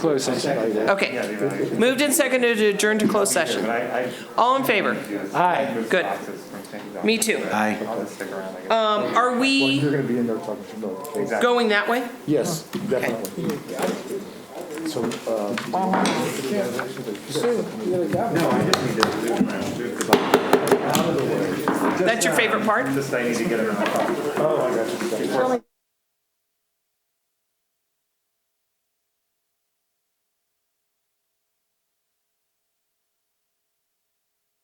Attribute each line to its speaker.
Speaker 1: Close session.
Speaker 2: Okay. Moved and seconded to adjourn to closed session. All in favor?
Speaker 1: Aye.
Speaker 2: Good. Me too.
Speaker 3: Aye.
Speaker 2: Um, Are we
Speaker 4: You're gonna be in there talking to no things.
Speaker 2: going that way?
Speaker 4: Yes, definitely. So, uh.
Speaker 2: That's your favorite part?
Speaker 5: Just I need to get another copy.
Speaker 4: Oh, I got you.
Speaker 5: Before